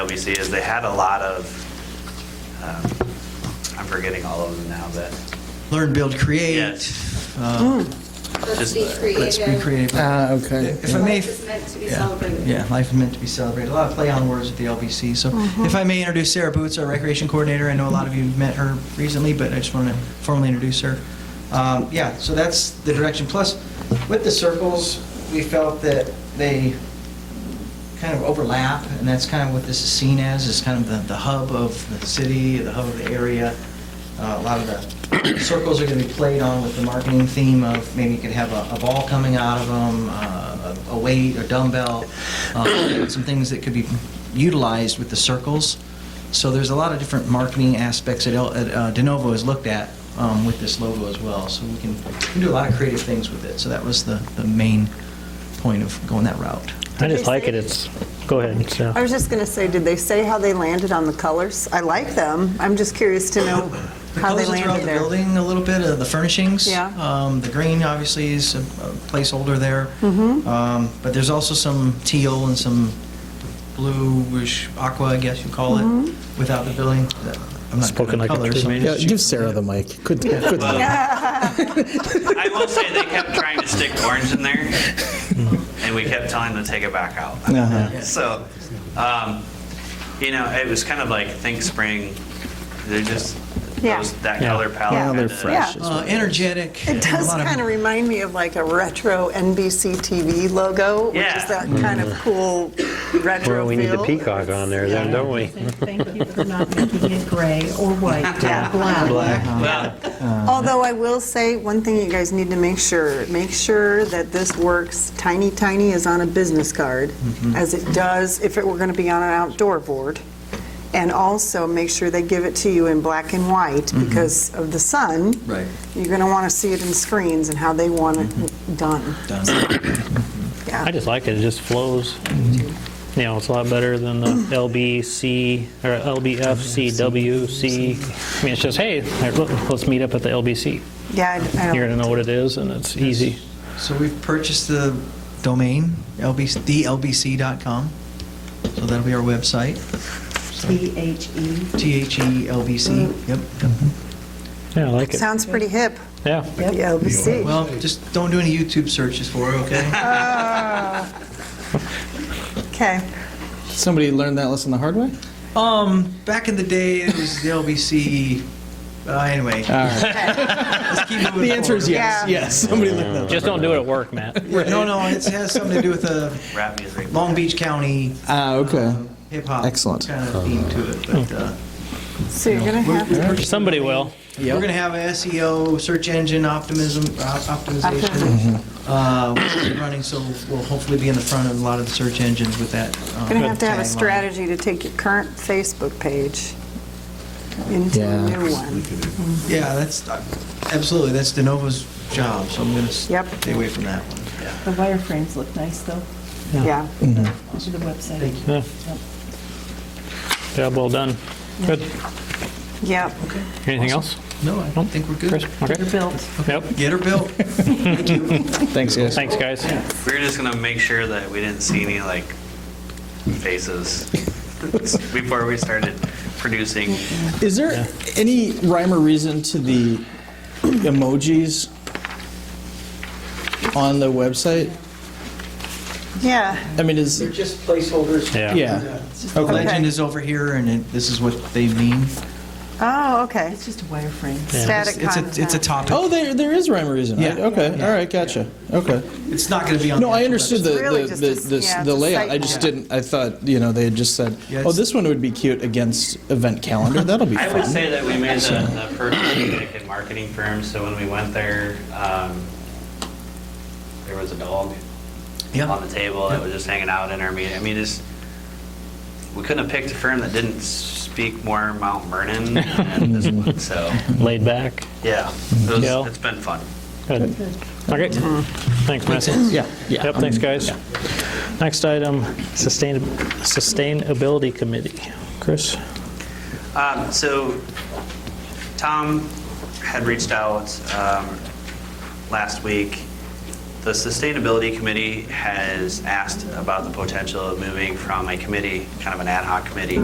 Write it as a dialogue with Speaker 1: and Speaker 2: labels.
Speaker 1: crazy is they had a lot of, um, I'm forgetting all of them now, but
Speaker 2: Learn, build, create.
Speaker 1: Yes.
Speaker 2: uh,
Speaker 3: Let's
Speaker 1: Just-
Speaker 3: be
Speaker 2: Let's be
Speaker 3: creative.
Speaker 2: creative.
Speaker 4: Ah, okay.
Speaker 2: If I may,
Speaker 3: Life is meant to be
Speaker 2: yeah,
Speaker 3: celebrated.
Speaker 2: Yeah, life is meant to be celebrated. A lot of play on words with the LBC. So if I may introduce Sarah Boots, our recreation coordinator. I know a lot of you met her recently, but I just want to formally introduce her. Um, Yeah, so that's the direction. Plus, with the circles, we felt that they kind of overlap, and that's kind of what this is seen as, is kind of the, the hub of the city, the hub of the area. Uh, A lot of the circles are going to be played on with the marketing theme of maybe you could have a a ball coming out of them, a weight, a dumbbell, uh, some things that could be utilized with the circles. So there's a lot of different marketing aspects that El- that, uh, De Novo has looked at um, with this logo as well. So we can we can do a lot of creative things with it. So that was the, the main point of going that route.
Speaker 5: I
Speaker 6: Did
Speaker 5: just
Speaker 6: they
Speaker 5: like
Speaker 6: say-
Speaker 5: it. It's, uh, go ahead. so.
Speaker 6: I was just going to say, did they say how they landed on the colors? I like them. I'm just curious to know
Speaker 2: The
Speaker 6: how they
Speaker 2: colors that throughout
Speaker 6: landed
Speaker 2: the
Speaker 6: there.
Speaker 2: building a little bit, uh, the furnishings.
Speaker 6: Yeah.
Speaker 2: Um, The green, obviously, is a a placeholder there.
Speaker 6: Mm-hmm.
Speaker 2: Um, But there's also some teal and some bluish aqua, I guess you call it,
Speaker 6: Mm-hmm.
Speaker 2: without the building. Uh, I'm not good
Speaker 5: Spoken
Speaker 2: at
Speaker 5: like a
Speaker 2: colors,
Speaker 5: true
Speaker 2: so-
Speaker 5: man.
Speaker 4: Yeah, give Sarah the mic. Good, good luck.
Speaker 1: I will say they kept trying to stick orange in there, and we kept telling them to take it back
Speaker 4: Uh-huh.
Speaker 1: out. So, um, you know, it was kind of like think spring. They're just
Speaker 6: Yeah.
Speaker 1: those, that
Speaker 5: Yeah.
Speaker 1: color palette.
Speaker 6: Yeah.
Speaker 4: Now they're
Speaker 1: kinda-
Speaker 4: fresh.
Speaker 6: Yeah.
Speaker 2: Uh, Energetic.
Speaker 6: It does kind of remind me of like a retro NBC TV logo, which
Speaker 1: Yeah.
Speaker 6: is that kind of cool retro
Speaker 5: Well, we need the
Speaker 6: feel.
Speaker 5: peacock on there then, don't we?
Speaker 7: Thank you for not making it gray or white or black.
Speaker 1: Well,
Speaker 6: Although I will say, one thing you guys need to make sure, make sure that this works, tiny, tiny is on a business card, as it does if it were going to be on an outdoor board. And also, make sure they give it to you in black and white, because of the sun.
Speaker 2: Right.
Speaker 6: You're going to want to see it in screens and how they want it Mm-hmm. done.
Speaker 5: I just like it. It just flows. You know, it's a lot better than the LBC or LBFCWC. I mean, it's just, hey, look, let's meet up at the LBC.
Speaker 6: Yeah, I- I
Speaker 5: You're
Speaker 6: don't,
Speaker 5: going to know what it is and it's easy.
Speaker 2: So we've purchased the domain, LBC thelbc.com. So that'll be our website, E
Speaker 7: T-H-E.
Speaker 6: Mm.
Speaker 2: T-H-E-L-B-C, yep.
Speaker 5: Yeah, I like it.
Speaker 6: sounds pretty hip,
Speaker 5: Yeah.
Speaker 6: the LBC.
Speaker 2: Well, just don't do any YouTube searches for it, okay?
Speaker 6: Okay.
Speaker 4: Somebody learned that lesson the hard way?
Speaker 2: Um, back in the day, it was the LBC, uh, anyway. Let's keep moving
Speaker 4: The answer is
Speaker 2: forward.
Speaker 4: yes,
Speaker 6: Yeah.
Speaker 4: yes. Somebody learned that.
Speaker 5: Just don't do it at work, Matt.
Speaker 2: No, no, it has something to do with the
Speaker 1: rap music.
Speaker 2: Long Beach County
Speaker 4: Ah, okay.
Speaker 2: hip-hop.
Speaker 4: Excellent.
Speaker 2: Kind of theme to it, but, uh,
Speaker 6: So you're going to
Speaker 2: we're-
Speaker 6: have,
Speaker 5: Somebody will.
Speaker 2: We're going to have a SEO, search engine optimism, uh, optimization,
Speaker 4: Mm-hmm.
Speaker 2: uh, running, so we'll hopefully be in the front of a lot of the search engines with that. um,
Speaker 6: going to have to have a
Speaker 2: tagline.
Speaker 6: strategy to take your current Facebook page into a
Speaker 4: Yeah.
Speaker 6: new one.
Speaker 2: Yeah, that's, uh, absolutely, that's De Novo's job, so I'm going to
Speaker 6: Yep.
Speaker 2: stay away from that one.
Speaker 7: The wireframes look nice, though,
Speaker 6: Yeah.
Speaker 7: to the website.
Speaker 5: Job well done. Good.
Speaker 6: Yep.
Speaker 5: Anything else?
Speaker 2: No, I don't think we're
Speaker 5: Chris?
Speaker 2: good.
Speaker 5: Okay.
Speaker 7: They're built.
Speaker 5: Yep.
Speaker 2: Get her built.
Speaker 4: Thanks, guys.
Speaker 5: Thanks, guys.
Speaker 1: We were just gonna make sure that we didn't see any like faces before we started producing.
Speaker 4: Is there any rhyme or reason to the emojis on the website?
Speaker 6: Yeah.
Speaker 4: I mean, is,
Speaker 2: just placeholders.
Speaker 5: Yeah.
Speaker 4: yeah.
Speaker 2: The
Speaker 4: Okay.
Speaker 2: legend is over here, and it- this is what they mean.
Speaker 6: Oh, okay.
Speaker 7: It's just a wireframe.
Speaker 6: Static
Speaker 2: It's
Speaker 6: content.
Speaker 2: a, it's a topic.
Speaker 4: Oh, there, there is rhyme or reason. right?
Speaker 2: Yeah.
Speaker 4: Okay, all right, gotcha. Okay.
Speaker 2: It's not going to be on.
Speaker 4: No,
Speaker 2: the
Speaker 4: I
Speaker 2: actual
Speaker 4: understood the,
Speaker 2: website.
Speaker 6: really
Speaker 4: the,
Speaker 6: just
Speaker 4: the,
Speaker 6: a-
Speaker 4: the,
Speaker 6: yeah,
Speaker 4: the
Speaker 6: it's a
Speaker 4: layout.
Speaker 6: site
Speaker 4: I just
Speaker 6: map.
Speaker 4: didn't, I thought, you know, they had just said,
Speaker 2: Yeah,
Speaker 4: oh,
Speaker 2: it's-
Speaker 4: this one would be cute against event calendar. That'll be
Speaker 1: I would
Speaker 4: fun.
Speaker 1: say that we made the, the first Connecticut marketing firm, so when we went there, um, there was a dog
Speaker 2: Yeah.
Speaker 1: on the table that was just hanging out in our meeting. I mean, just, we couldn't have picked a firm that didn't speak more Mount Vernon than this one, so,
Speaker 5: Laid back.
Speaker 1: yeah. it was-
Speaker 5: Yeah.
Speaker 1: It's been fun.
Speaker 5: Good. Okay. Thanks, Matt.
Speaker 4: Yeah, yeah.
Speaker 5: Yep, thanks, guys. Next item, sustain- Sustainability Committee. Chris?
Speaker 1: Um, So Tom had reached out um, last week. The Sustainability Committee has asked about the potential of moving from a committee, kind of an ad hoc committee,